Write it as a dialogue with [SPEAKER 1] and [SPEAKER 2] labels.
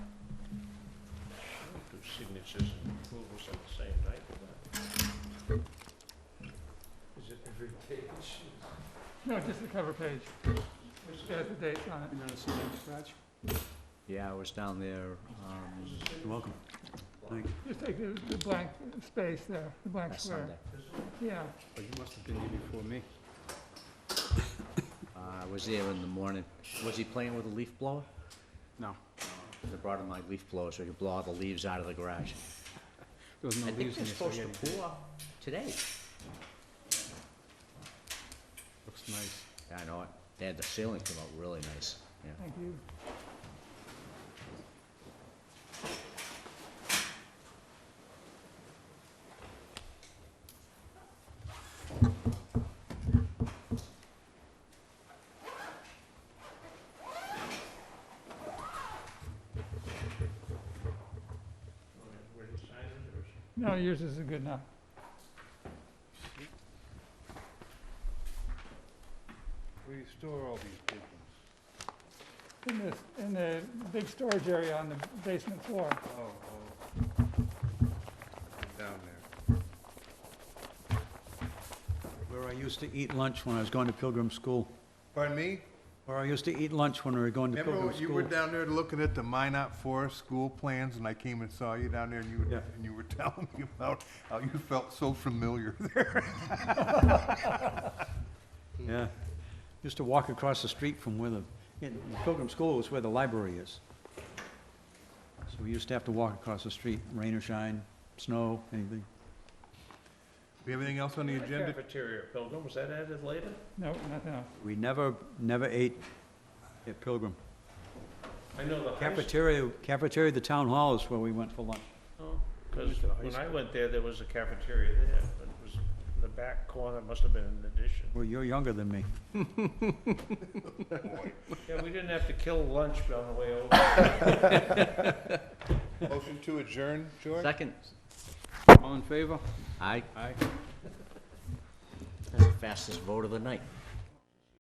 [SPEAKER 1] signatures and approvals on the same night, but. Is it every page?
[SPEAKER 2] No, just the cover page.
[SPEAKER 1] Is
[SPEAKER 2] It has the dates on it.
[SPEAKER 3] You gonna see that scratch?
[SPEAKER 4] Yeah, I was down there, um,
[SPEAKER 3] You're welcome. Thank you.
[SPEAKER 2] Just take the the blank space there, the blank
[SPEAKER 4] last
[SPEAKER 2] square.
[SPEAKER 4] Sunday.
[SPEAKER 2] Yeah,
[SPEAKER 3] But you must have been here before me.
[SPEAKER 4] Uh, I was there in the morning. Was he playing with a leaf blower?
[SPEAKER 3] No,
[SPEAKER 4] I brought him my leaf blower so he could blow all the leaves out of the garage.
[SPEAKER 3] there was
[SPEAKER 4] I
[SPEAKER 3] no
[SPEAKER 4] think
[SPEAKER 3] leaves in
[SPEAKER 4] they're
[SPEAKER 3] this
[SPEAKER 4] supposed
[SPEAKER 3] spaghetti.
[SPEAKER 4] to pour today.
[SPEAKER 3] Looks nice.
[SPEAKER 4] Yeah, I know it. They had the ceiling come out really nice, yeah.
[SPEAKER 2] thank you.
[SPEAKER 1] Were you signing it or? is it-
[SPEAKER 2] No, yours is good enough.
[SPEAKER 5] Where you store all these papers?
[SPEAKER 2] In this, in the big storage area on the basement floor.
[SPEAKER 5] Oh, oh. Down there.
[SPEAKER 3] Where I used to eat lunch when I was going to Pilgrim School.
[SPEAKER 5] Pardon me?
[SPEAKER 3] Where I used to eat lunch when we were going to
[SPEAKER 5] Remember
[SPEAKER 3] Pilgrim
[SPEAKER 5] when you were
[SPEAKER 3] School.
[SPEAKER 5] down there looking at the Minot Forest school plans and I came and saw you down there and you,
[SPEAKER 3] Yeah.
[SPEAKER 5] were- and you were telling me about how you felt so familiar there?
[SPEAKER 3] Yeah. Used to walk across the street from where the, in Pilgrim School is where the library is. So we used to have to walk across the street, rain or shine, snow, anything.
[SPEAKER 5] We have anything else on the agenda?
[SPEAKER 1] Cafeteria Pilgrim, was that added later?
[SPEAKER 2] No, nothing else.
[SPEAKER 3] We never, never ate at Pilgrim.
[SPEAKER 1] I know the high school,
[SPEAKER 3] Cafeteria, cafeteria, at the town hall is where we went for lunch.
[SPEAKER 1] because when I went there, there was a cafeteria there, but it was in the back corner, must have been an addition.
[SPEAKER 3] Well, you're younger than me.
[SPEAKER 1] Yeah, we didn't have to kill lunch on the way over.
[SPEAKER 5] Motion to adjourn, George?
[SPEAKER 4] Second,
[SPEAKER 3] All in favor?
[SPEAKER 4] aye,
[SPEAKER 3] Aye.
[SPEAKER 4] that's the fastest vote of the night.